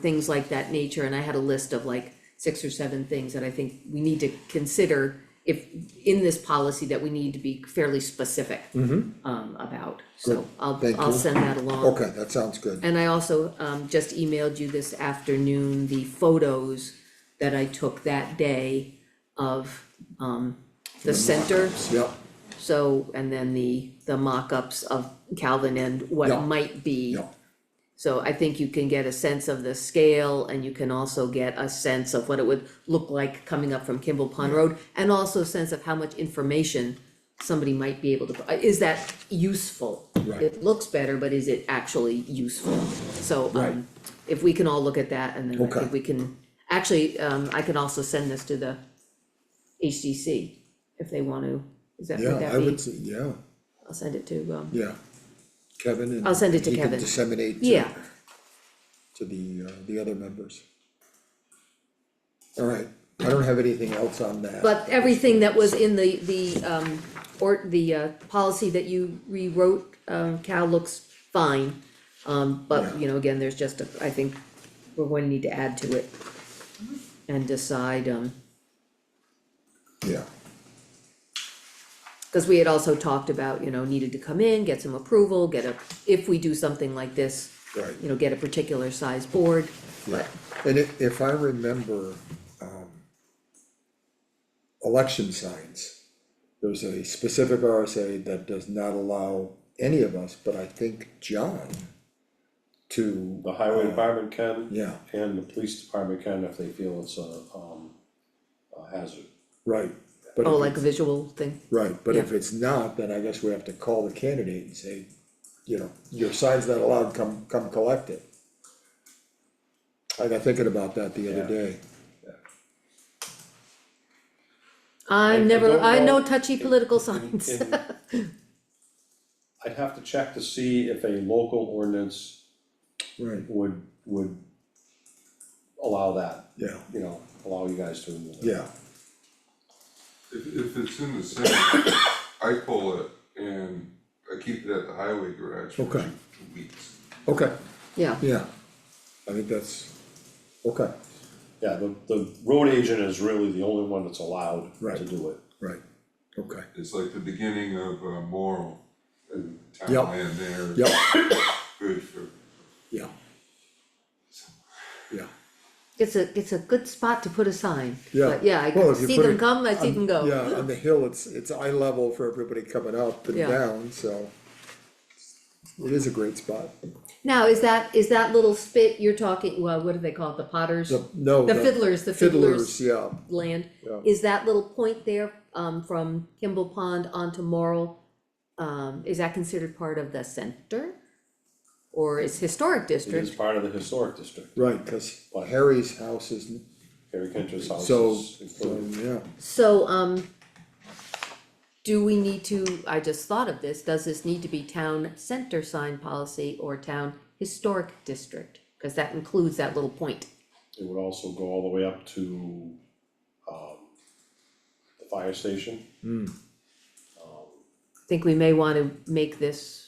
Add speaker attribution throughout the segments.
Speaker 1: things like that nature, and I had a list of like six or seven things that I think we need to consider if, in this policy that we need to be fairly specific um, about, so
Speaker 2: Mm-hmm. Good.
Speaker 1: I'll,
Speaker 2: Thank
Speaker 1: I'll
Speaker 2: you.
Speaker 1: send that along.
Speaker 2: Okay, that sounds good.
Speaker 1: And I also, um, just emailed you this afternoon the photos that I took that day of, um, the center,
Speaker 2: Yep,
Speaker 1: so, and then the, the mock-ups of Calvin and what
Speaker 2: Yeah.
Speaker 1: might be.
Speaker 2: yep,
Speaker 1: So I think you can get a sense of the scale and you can also get a sense of what it would look like coming up from Kimball Pond Road. And also a sense of how much information somebody might be able to, uh, is that useful?
Speaker 2: Right.
Speaker 1: It looks better, but is it actually useful? So,
Speaker 2: Right.
Speaker 1: um, if we can all look at that and then I
Speaker 2: Okay.
Speaker 1: think we can, actually, um, I can also send this to the HDC if they want to, is that,
Speaker 2: yeah,
Speaker 1: would
Speaker 2: I
Speaker 1: that
Speaker 2: would
Speaker 1: be?
Speaker 2: say, yeah,
Speaker 1: I'll send it to, um,
Speaker 2: yeah. Kevin and.
Speaker 1: I'll send it to
Speaker 2: he can
Speaker 1: Kevin.
Speaker 2: disseminate to,
Speaker 1: yeah,
Speaker 2: to the, uh, the other members. All right, I don't have anything else on that.
Speaker 1: But everything that was in the, the, um, or the, uh, policy that you rewrote, um, Cal looks fine. Um, but, you know, again, there's just a, I think we're going to need to add to it. And decide, um,
Speaker 2: Yeah,
Speaker 1: cause we had also talked about, you know, needed to come in, get some approval, get a, if we do something like this.
Speaker 2: Right.
Speaker 1: You know, get a particular size board,
Speaker 2: yeah, and if, if I remember, um. Election signs, there's a specific RSA that does not allow any of us, but I think John. To, uh,
Speaker 3: The highway department can.
Speaker 2: Um, yeah,
Speaker 3: And the police department can if they feel it's a, um, a hazard.
Speaker 2: right, but.
Speaker 1: oh,
Speaker 2: if
Speaker 1: like a visual thing,
Speaker 2: Right, but if
Speaker 1: Yeah.
Speaker 2: it's not, then I guess we have to call the candidate and say, you know, your sign's not allowed, come, come collect it. I got thinking about that the other
Speaker 3: Yeah.
Speaker 2: day.
Speaker 1: I'm
Speaker 3: I
Speaker 1: never,
Speaker 3: don't
Speaker 1: I know
Speaker 3: know.
Speaker 1: touchy political signs.
Speaker 3: And- I'd have to check to see if a local ordinance
Speaker 2: Right.
Speaker 3: would, would allow that,
Speaker 2: Yeah,
Speaker 3: you know, allow you guys to remove it.
Speaker 2: yeah,
Speaker 4: If, if it's in the center, I pull it and I keep it at the highway garage for two,
Speaker 2: Okay.
Speaker 4: two weeks.
Speaker 2: okay,
Speaker 1: Yeah,
Speaker 2: yeah. I think that's, okay,
Speaker 3: Yeah, the, the road agent is really the only one that's allowed to
Speaker 2: Right.
Speaker 3: do it.
Speaker 2: right, okay,
Speaker 4: It's like the beginning of uh, Morrell and
Speaker 2: Yep.
Speaker 4: townland there.
Speaker 2: Yep.
Speaker 4: Good for,
Speaker 2: yeah. Yeah,
Speaker 1: It's a, it's a good spot to put a sign,
Speaker 2: Yeah.
Speaker 1: but yeah, I
Speaker 2: Well,
Speaker 1: can
Speaker 2: if you
Speaker 1: see
Speaker 2: put
Speaker 1: them
Speaker 2: it
Speaker 1: come, I see them go.
Speaker 2: yeah, on the hill, it's, it's eye level for everybody coming up and
Speaker 1: Yeah.
Speaker 2: down, so. It is a great spot.
Speaker 1: Now, is that, is that little spit you're talking, well, what do they call it, the Potter's
Speaker 2: The, no.
Speaker 1: The fiddlers, the fiddlers.
Speaker 2: Fiddlers, yeah,
Speaker 1: land?
Speaker 2: Yeah.
Speaker 1: Is that little point there, um, from Kimball Pond onto Morrell, um, is that considered part of the center? Or is historic
Speaker 3: It is
Speaker 1: district?
Speaker 3: part of the historic district.
Speaker 2: right, cause
Speaker 3: But-
Speaker 2: Harry's house is
Speaker 3: Harry Kendra's house
Speaker 2: So,
Speaker 3: is
Speaker 2: so,
Speaker 3: included.
Speaker 2: yeah,
Speaker 1: So, um, do we need to, I just thought of this, does this need to be town center sign policy or town historic district? Cause that includes that little point.
Speaker 3: It would also go all the way up to, um, the fire station.
Speaker 1: think we may wanna make this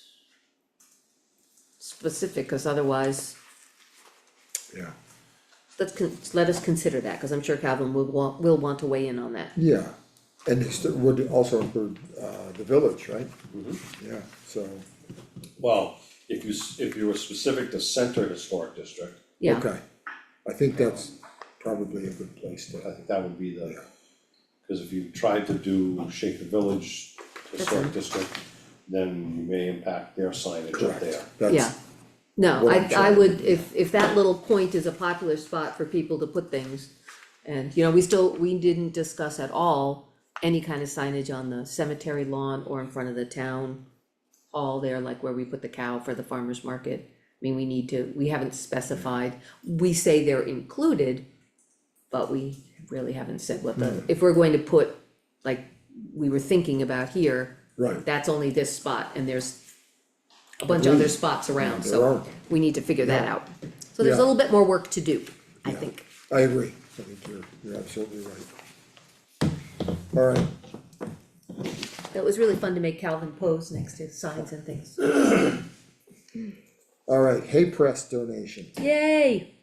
Speaker 1: specific, cause otherwise,
Speaker 2: yeah,
Speaker 1: let's con- let us consider that, cause I'm sure Calvin will want, will want to weigh in on that.
Speaker 2: yeah, and it's, it would also include, uh, the village, right?
Speaker 3: Mm-hmm.
Speaker 2: Yeah, so,
Speaker 3: Well, if you, s- if you were specific to center historic district,
Speaker 1: Yeah,
Speaker 2: okay, I think that's probably a good place
Speaker 3: I
Speaker 2: to,
Speaker 3: think that would be the,
Speaker 2: Yeah.
Speaker 3: cause if you tried to do shake the village historic district, then you may impact their signage up
Speaker 2: correct,
Speaker 3: there.
Speaker 1: yeah.
Speaker 2: that's,
Speaker 1: No,
Speaker 2: What
Speaker 1: I,
Speaker 2: I'm
Speaker 1: I
Speaker 2: saying.
Speaker 1: would, if, if that little point is a popular spot for people to put things, and, you know, we still, we didn't discuss at all any kind of signage on the cemetery lawn or in front of the town hall there, like where we put the cow for the farmer's market. I mean, we need to, we haven't specified, we say they're included, but we really haven't said what
Speaker 2: Hmm.
Speaker 1: the, if we're going to put, like, we were thinking about here,
Speaker 2: right,
Speaker 1: that's only this spot and there's a bunch of other spots around,
Speaker 2: There
Speaker 1: so
Speaker 2: are.
Speaker 1: we need to figure that out. So there's a
Speaker 2: Yeah.
Speaker 1: little bit more work to do, I think.
Speaker 2: I agree, I think you're, you're absolutely right. All right,
Speaker 1: It was really fun to make Calvin pose next to signs and things.
Speaker 2: all right, hay press donation,
Speaker 1: Yay!